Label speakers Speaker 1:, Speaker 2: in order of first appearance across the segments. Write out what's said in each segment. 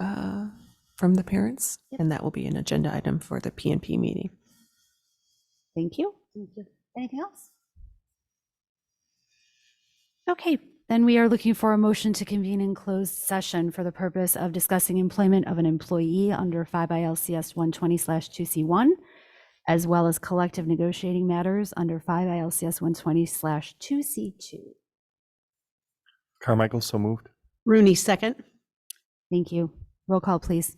Speaker 1: uh, from the parents,
Speaker 2: Yep.
Speaker 1: and that will be an agenda item for the PNP meeting.
Speaker 2: Thank you. Anything else? Okay, then we are looking for a motion to convene in closed session for the purpose of discussing employment of an employee under 5 ILCS 120/2C1, as well as collective negotiating matters under 5 ILCS 120/2C2.
Speaker 3: Carmichael, so moved.
Speaker 4: Rooney, second.
Speaker 2: Thank you. Roll call, please.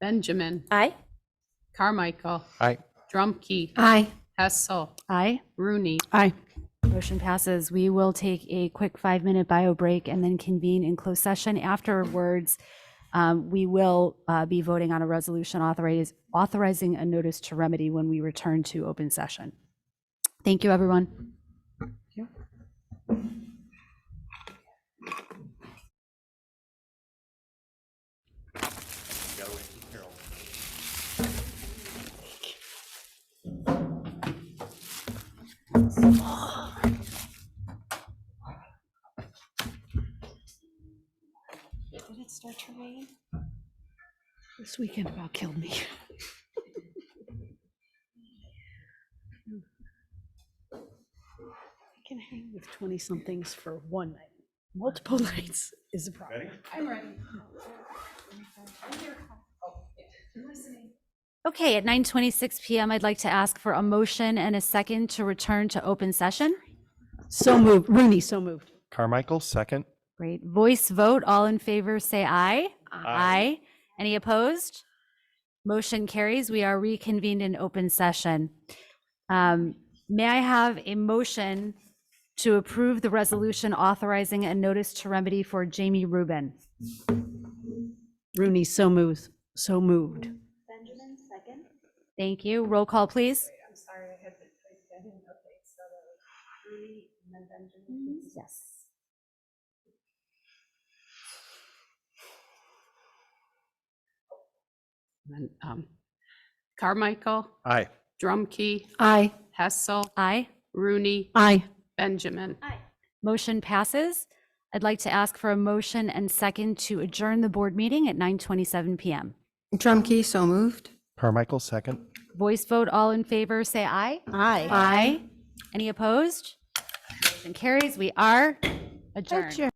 Speaker 5: Benjamin.
Speaker 4: Aye.
Speaker 5: Carmichael.
Speaker 3: Aye.
Speaker 5: Drumkey.
Speaker 4: Aye.
Speaker 5: Hessel.
Speaker 2: Aye.
Speaker 5: Rooney.
Speaker 4: Aye.
Speaker 2: Motion passes. We will take a quick five-minute bio break and then convene in closed session. Afterwards, um, we will uh, be voting on a resolution authoriz- authorizing a notice to remedy when we return to open session. Thank you, everyone.
Speaker 4: This weekend about killed me. I can hang with 20-somethings for one night. Multiple nights is a problem.
Speaker 2: Okay, at 9:26 PM, I'd like to ask for a motion and a second to return to open session.
Speaker 4: So moved. Rooney, so moved.
Speaker 3: Carmichael, second.
Speaker 2: Great. Voice vote. All in favor, say aye. Aye. Any opposed? Motion carries. We are reconvened in open session. Um, May I have a motion to approve the resolution authorizing a notice to remedy for Jamie Rubin?
Speaker 4: Rooney, so moved. So moved.
Speaker 2: Thank you. Roll call, please. Yes.
Speaker 5: And, um, Carmichael.
Speaker 3: Aye.
Speaker 5: Drumkey.
Speaker 4: Aye.
Speaker 5: Hessel.
Speaker 2: Aye.
Speaker 5: Rooney.
Speaker 4: Aye.
Speaker 5: Benjamin.
Speaker 2: Motion passes. I'd like to ask for a motion and second to adjourn the board meeting at 9:27 PM.
Speaker 6: Drumkey, so moved.
Speaker 3: Carmichael, second.
Speaker 2: Voice vote, all in favor, say aye.
Speaker 4: Aye.
Speaker 2: Aye. Any opposed? Motion carries. We are adjourned.